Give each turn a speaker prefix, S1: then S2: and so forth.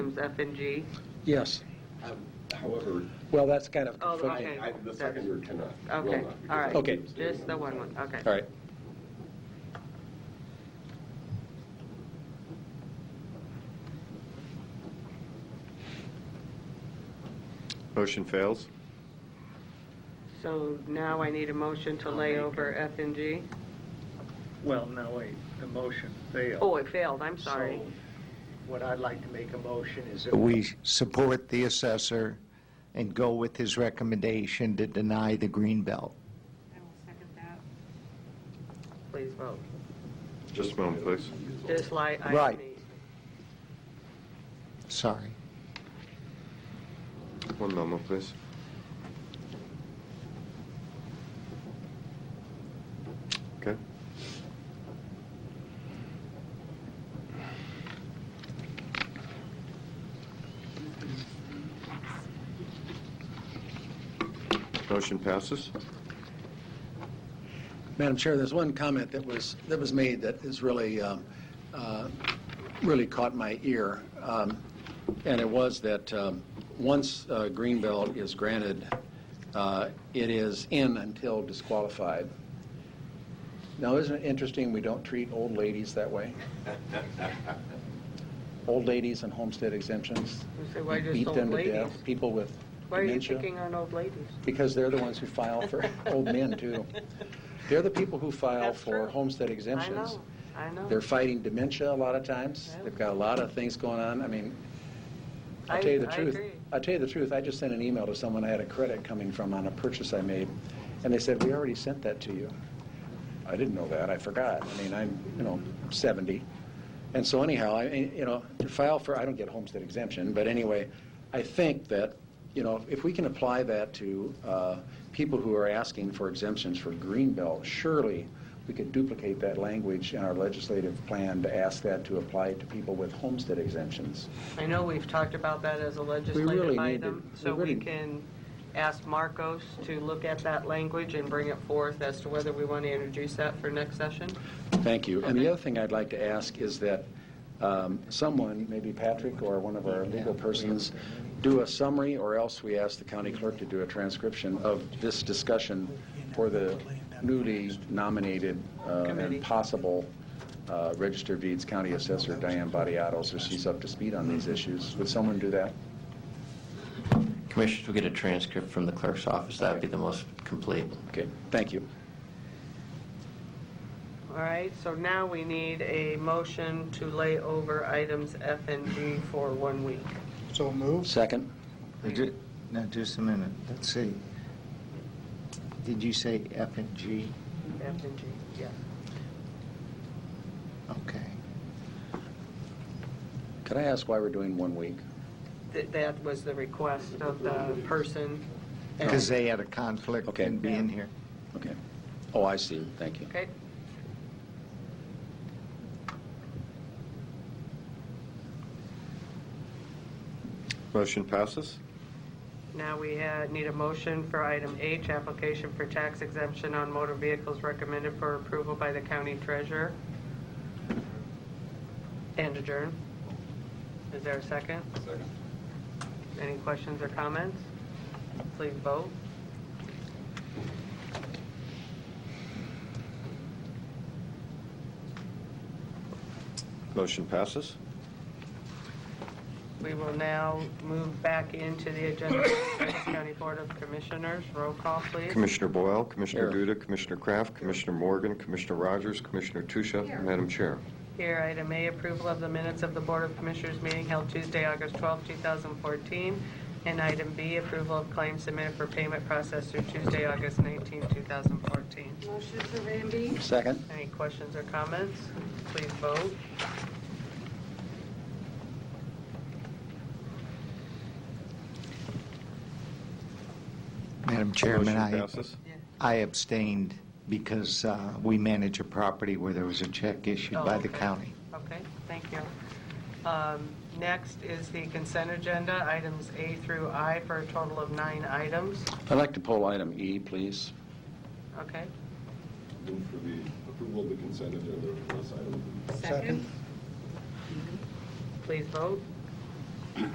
S1: items F and G.
S2: Yes.
S3: Um, However,
S2: Well, that's kind of
S1: Oh,
S2: conflicting.
S1: okay.
S3: I- the second year cannot, will
S1: Okay,
S3: not. because
S1: all right.
S3: I
S2: Okay.
S3: abstained
S1: Just the
S3: on
S1: one
S3: that.
S1: one, okay.
S2: All right.
S4: Motion fails.
S1: So now I need a motion to lay over F and G.
S5: Well, no, wait, the motion failed.
S1: Oh, it failed, I'm sorry.
S5: So What I'd like to make a motion is that
S6: We support the assessor and go with his recommendation to deny the green belt.
S7: I will second that.
S1: Please vote.
S4: Just a moment, please.
S1: Just like item
S6: Right.
S1: E.
S6: Sorry.
S4: One moment, please. Okay. Motion passes.
S2: Madam Chair, there's one comment that was, that was made that is really, um, uh, really caught my ear. Um, And it was that um, once uh, green belt is granted, uh, it is in until disqualified. Now, isn't it interesting we don't treat old ladies that way? Old ladies and homestead exemptions,
S1: You say, why just
S2: beat
S1: old
S2: them to
S1: ladies?
S2: death. People with
S1: Why are you
S2: dementia.
S1: picking on old ladies?
S2: Because they're the ones who file for, old men too. They're the people who file
S1: That's
S2: for
S1: true.
S2: homestead
S1: I
S2: exemptions.
S1: know, I know.
S2: They're fighting dementia a lot of times.
S1: Yeah.
S2: They've got a lot of things going on. I mean,
S1: I-
S2: I'll tell you the
S1: I
S2: truth.
S1: agree.
S2: I'll tell you the truth, I just sent an email to someone I had a credit coming from on a purchase I made, and they said, "We already sent that to you." I didn't know that, I forgot. I mean, I'm, you know, 70. And so anyhow, I, you know, to file for, I don't get homestead exemption, but anyway, I think that, you know, if we can apply that to uh, people who are asking for exemptions for green belt, surely we could duplicate that language in our legislative plan to ask that to apply to people with homestead exemptions.
S1: I know we've talked about that as a legislative
S2: really need
S1: item,
S2: to-
S1: so we
S2: we really-
S1: can ask Marcos to look at that language and bring it forth as to whether we want to introduce that for next session.
S2: Thank you. And the other thing I'd like to ask is that um, someone, maybe Patrick or one of our legal persons, do a summary, or else we ask the county clerk to do a transcription of this discussion for the newly nominated uh,
S1: Committee.
S2: and possible uh, Register of Deeds County Assessor Diane Badiato, so she's up to speed on these issues. Would someone do that?
S8: Commissioners will get a transcript from the clerk's office. That'd be the most complete.
S2: Okay, thank you.
S1: All right, so now we need a motion to lay over items F and G for one week.
S9: So moved.
S2: Second?
S6: Ju-
S9: Now, just a minute, let's see. Did you say F and G?
S1: F and G, yeah.
S9: Okay.
S2: Could I ask why we're doing one week?
S1: Th- That was the request of the person.
S9: Because they had a conflict
S2: Okay.
S9: in being here.
S2: Okay. Oh, I see, thank you.
S1: Okay,
S4: Motion passes.
S1: now we ha- need a motion for item H, application for tax exemption on motor vehicles recommended for approval by the county treasurer. And adjourn. Is there a second?
S3: Second.
S1: Any questions or comments? Please vote.
S4: Motion passes.
S1: We will now move back into the agenda, of the Lawrence County Board of Commissioners, roll call, please.
S4: Commissioner Boyle, Commissioner
S2: Here.
S4: Duda, Commissioner Kraft, Commissioner Morgan, Commissioner Rogers, Commissioner Tusha, Madam Chair.
S1: Here, item A, approval of the minutes of the Board of Commissioners meeting held Tuesday, August 12, 2014. And item B, approval of claims submitted for payment processed through Tuesday, August 19, 2014.
S7: Motion for item B?
S2: Second?
S1: Any questions or comments? Please vote.
S6: Madam Chairman,
S4: Motion
S6: I
S4: passes.
S6: I abstained because uh, we manage a property where there was a check issued
S1: Oh,
S6: by the
S1: okay.
S6: county.
S1: Okay, thank you. Um, Next is the consent agenda, items A through I, for a total of nine items.
S2: I'd like to poll item E, please.
S1: Okay?
S3: Move for the approval of the consent agenda plus item
S7: Second.
S1: Please vote.